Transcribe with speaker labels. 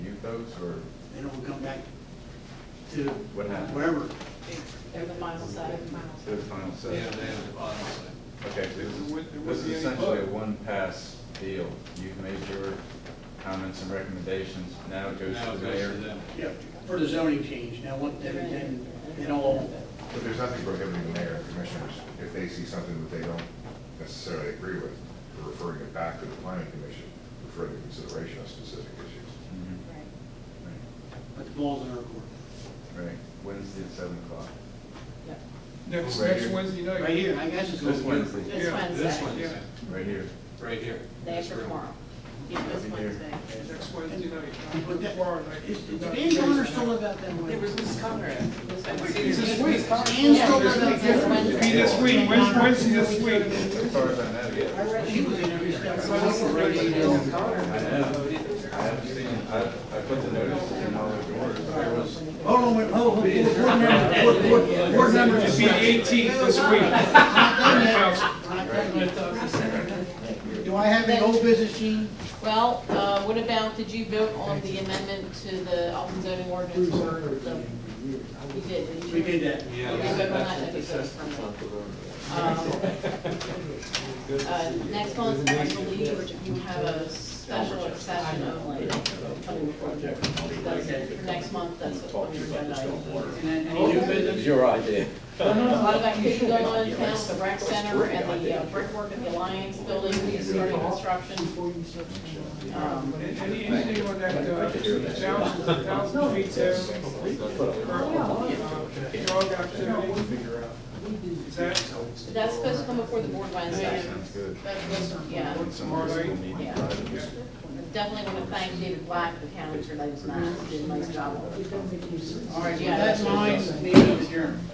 Speaker 1: coats or
Speaker 2: Then it will come back to
Speaker 1: What happened?
Speaker 2: wherever.
Speaker 3: They're the final say.
Speaker 1: to the final set?
Speaker 4: Yeah, they have the final say.
Speaker 1: Okay, so this
Speaker 4: There wouldn't- there
Speaker 1: is,
Speaker 4: wouldn't
Speaker 1: this
Speaker 4: be
Speaker 1: is
Speaker 4: any
Speaker 1: essentially a
Speaker 4: vote.
Speaker 1: one-pass deal. You've made your comments and recommendations, now it goes
Speaker 4: Now
Speaker 1: to
Speaker 4: it
Speaker 1: the
Speaker 4: goes to
Speaker 1: mayor.
Speaker 4: them.
Speaker 2: Yeah, for the zoning change, now what, everything, it all,
Speaker 5: But there's nothing prohibiting the mayor and commissioners, if they see something that they don't necessarily agree with, from referring it back to the planning commission for further consideration of specific issues.
Speaker 1: Mhm.
Speaker 2: but the ball's in our court.
Speaker 1: Right, Right. Wednesday at seven o'clock.
Speaker 6: Next,
Speaker 1: Right
Speaker 6: next
Speaker 1: here.
Speaker 6: Wednesday night.
Speaker 2: Right here, I guess it's.
Speaker 1: This Wednesday.
Speaker 3: This
Speaker 6: Yeah,
Speaker 4: This
Speaker 3: Wednesday,
Speaker 4: one's
Speaker 6: Yeah.
Speaker 1: Right here.
Speaker 4: right here.
Speaker 3: day
Speaker 4: This
Speaker 3: after
Speaker 4: room.
Speaker 3: tomorrow. Yeah, this
Speaker 1: Over here.
Speaker 3: Wednesday.
Speaker 6: Next Wednesday night.
Speaker 2: But that,
Speaker 6: Tomorrow night.
Speaker 2: is, is Dan Connor still about that way?
Speaker 4: It's this week.
Speaker 2: Dan's still about
Speaker 3: This
Speaker 2: that
Speaker 6: It'll
Speaker 2: way?
Speaker 3: Wednesday.
Speaker 6: be this week, Wednesday, Wednesday this week.
Speaker 1: As far as I know, yeah.
Speaker 2: She was in every step. of the way.
Speaker 1: I know. I haven't seen, I, I put the notice in all the doors. There was,
Speaker 2: Hold on, wait, hold, hold, board board member, board, board, board member.
Speaker 6: It'll be the eighteenth this week.
Speaker 2: Do I have any old business, Gene?
Speaker 3: Well, uh, what about, did you vote on the amendment to the Alton zoning ordinance for the? You did, didn't you?
Speaker 2: We did that.
Speaker 4: Yeah.
Speaker 3: Okay, vote on that, okay, vote on that. Um, uh, Next month, I believe you have a special session only. That's it, for next month, that's what we're gonna do.
Speaker 2: And then, any new business?
Speaker 7: Your idea.
Speaker 3: A lot of activity going on in town, the rec center and the uh, brickwork at the Alliance building, we started construction. Um,
Speaker 6: And Any, anything on that, uh, thousand, thousand feet there? Uh, Dog activity? Is that,
Speaker 3: but That's supposed to come before the board Wednesday.
Speaker 1: sounds good.
Speaker 3: That's supposed to- yeah.
Speaker 1: Some of us will need to
Speaker 3: Yeah.
Speaker 1: drive this.
Speaker 3: Definitely want to thank David Black, the county for those nights, did a nice job.
Speaker 2: All right, so that's mine, meeting adjourned.